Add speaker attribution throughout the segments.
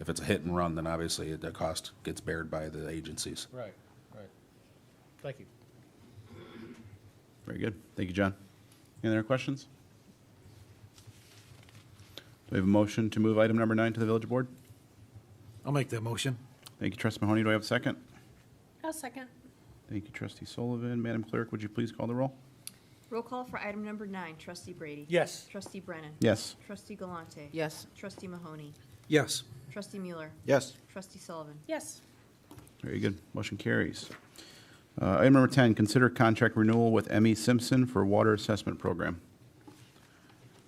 Speaker 1: If it's a hit and run, then obviously the cost gets bared by the agencies.
Speaker 2: Right, right. Thank you.
Speaker 3: Very good. Thank you, John. Any other questions? Do we have a motion to move item number nine to the village board?
Speaker 4: I'll make that motion.
Speaker 3: Thank you, trustee Mahoney. Do I have a second?
Speaker 5: I'll second.
Speaker 3: Thank you, trustee Sullivan. Madam Clerk, would you please call the roll?
Speaker 6: Roll call for item number nine, trustee Brady.
Speaker 2: Yes.
Speaker 6: Trustee Brennan.
Speaker 3: Yes.
Speaker 6: Trustee Galante.
Speaker 5: Yes.
Speaker 6: Trustee Mahoney.
Speaker 4: Yes.
Speaker 6: Trustee Mueller.
Speaker 4: Yes.
Speaker 6: Trustee Sullivan.
Speaker 5: Yes.
Speaker 3: Very good. Motion carries. Uh, Item number 10, consider contract renewal with ME Simpson for water assessment program.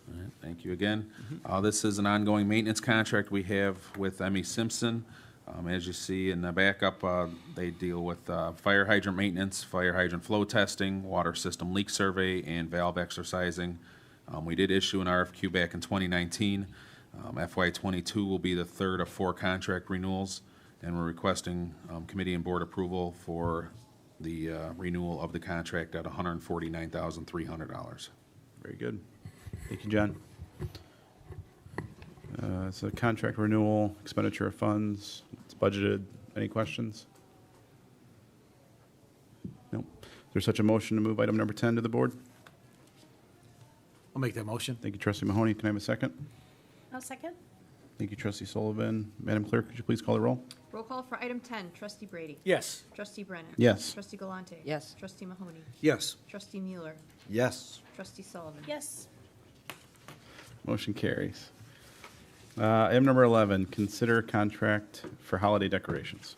Speaker 1: All right, Thank you again. Uh, This is an ongoing maintenance contract we have with ME Simpson. Um, As you see in the backup, uh, they deal with uh, fire hydrant maintenance, fire hydrant flow testing, water system leak survey, and valve exercising. Um, We did issue an RFQ back in Um, 2019. FY '22 will be the third of four contract renewals, and we're requesting um, committee and board approval for the uh, renewal of the contract at $149,300.
Speaker 3: Very good. Thank you, John. Uh, So contract renewal, expenditure of funds, it's budgeted. Any questions? Nope. Is there such a motion to move item number 10 to the board?
Speaker 4: I'll make that motion.
Speaker 3: Thank you, trustee Mahoney. Can I have a second?
Speaker 5: I'll second.
Speaker 3: Thank you, trustee Sullivan. Madam Clerk, could you please call the roll?
Speaker 6: Roll call for item ten, trustee Brady.
Speaker 2: Yes.
Speaker 6: Trustee Brennan.
Speaker 3: Yes.
Speaker 6: Trustee Galante.
Speaker 5: Yes.
Speaker 6: Trustee Mahoney.
Speaker 4: Yes.
Speaker 6: Trustee Mueller.
Speaker 4: Yes.
Speaker 6: Trustee Sullivan.
Speaker 5: Yes.
Speaker 3: Motion carries. Uh, Item number 11, consider contract for holiday decorations.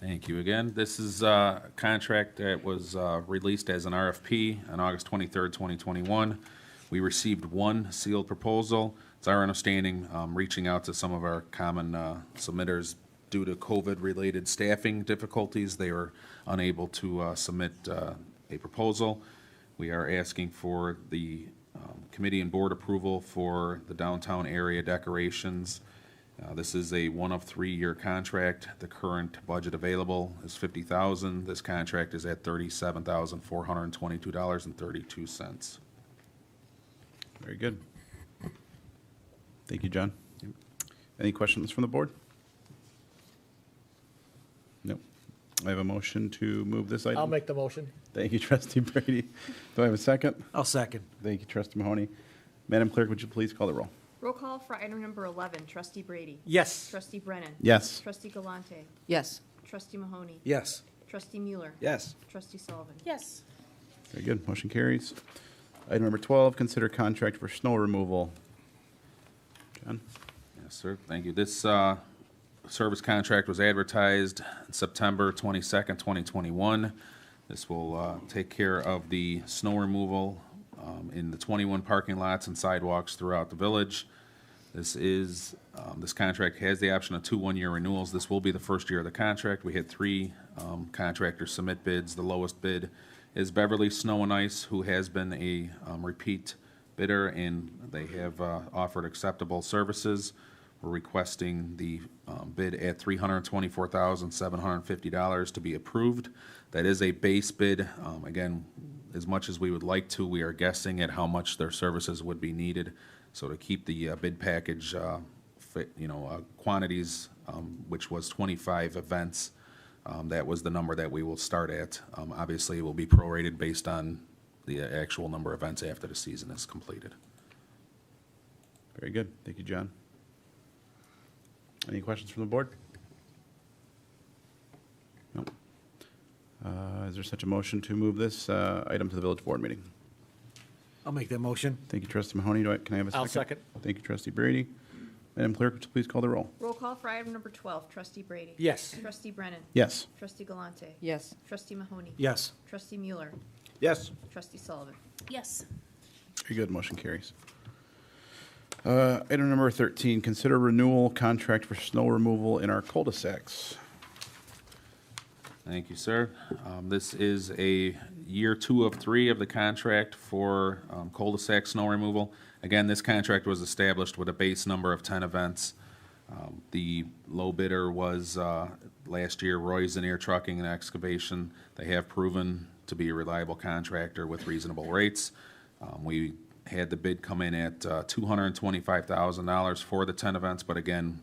Speaker 1: Thank you again. This is uh, a contract that was uh, released as an RFP on August 23rd, 2021. We received one sealed proposal. It's our understanding, um, reaching out to some of our common uh, submitters due to COVID-related staffing difficulties, they were unable to uh, submit uh, a proposal. We are asking for the um, committee and board approval for the downtown area decorations. Uh, This is a one of three-year contract. The current budget available is fifty thousand. This contract is at thirty-seven thousand, four hundred and twenty-two dollars and thirty-two cents.
Speaker 3: Very good. Thank you, John. Any questions from the board? No. I have a motion to move this item.
Speaker 2: I'll make the motion.
Speaker 3: Thank you, trustee Brady. Do I have a second?
Speaker 4: I'll second.
Speaker 3: Thank you, trustee Mahoney. Madam Clerk, would you please call the roll?
Speaker 6: Roll call for item number eleven, trustee Brady.
Speaker 2: Yes.
Speaker 6: Trustee Brennan.
Speaker 3: Yes.
Speaker 6: Trustee Galante.
Speaker 5: Yes.
Speaker 6: Trustee Mahoney.
Speaker 4: Yes.
Speaker 6: Trustee Mueller.
Speaker 4: Yes.
Speaker 6: Trustee Sullivan.
Speaker 5: Yes.
Speaker 3: Very good. Motion carries. Item number 12, consider contract for snow removal. John?
Speaker 1: Yes, sir. Thank you. This uh, service contract was advertised September 22nd, 2021. This will uh, take care of the snow removal um, in the 21 parking lots and sidewalks throughout the village. This is, um, this contract has the option of two one-year renewals. This will be the first year of the contract. We had three um, contractors submit bids. The lowest bid is Beverly Snow and Ice, who has been a um, repeat bidder, and they have uh, offered acceptable services. We're requesting the um, bid at $324,750 to be approved. That is a base bid. Um, Again, as much as we would like to, we are guessing at how much their services would be needed. So to keep the uh, bid package, uh, fit, you know, uh, quantities, um, which was 25 events, um, that was the number that we will start at. Um, Obviously, it will be prorated based on the actual number of events after the season is completed.
Speaker 3: Very good. Thank you, John. Any questions from the board? No. Uh, Is there such a motion to move this uh, item to the village board meeting?
Speaker 4: I'll make that motion.
Speaker 3: Thank you, trustee Mahoney. Do I, can I have a 2nd
Speaker 2: I'll
Speaker 3: Thank you, trustee Brady. Madam Clerk, would you please call the roll?
Speaker 6: Roll call for item number twelve, trustee Brady.
Speaker 2: Yes.
Speaker 6: Trustee Brennan.
Speaker 3: Yes.
Speaker 6: Trustee Galante.
Speaker 5: Yes.
Speaker 6: Trustee Mahoney.
Speaker 4: Yes.
Speaker 6: Trustee Mueller.
Speaker 4: Yes.
Speaker 6: Trustee Sullivan.
Speaker 5: Yes.
Speaker 3: Very good. Motion carries. Uh, Item number 13, consider renewal contract for snow removal in our cul-de-sacs.
Speaker 1: Thank you, sir. Um, This is a year two of three of the contract for um, cul-de-sac snow removal. Again, this contract was established with a base number of 10 events. Um, The low bidder was, uh, last year, Roy's and Air Trucking and Excavation. They have proven to be a reliable contractor with reasonable rates. Um, We had the bid come in at uh, $225,000 for the 10 events, but again,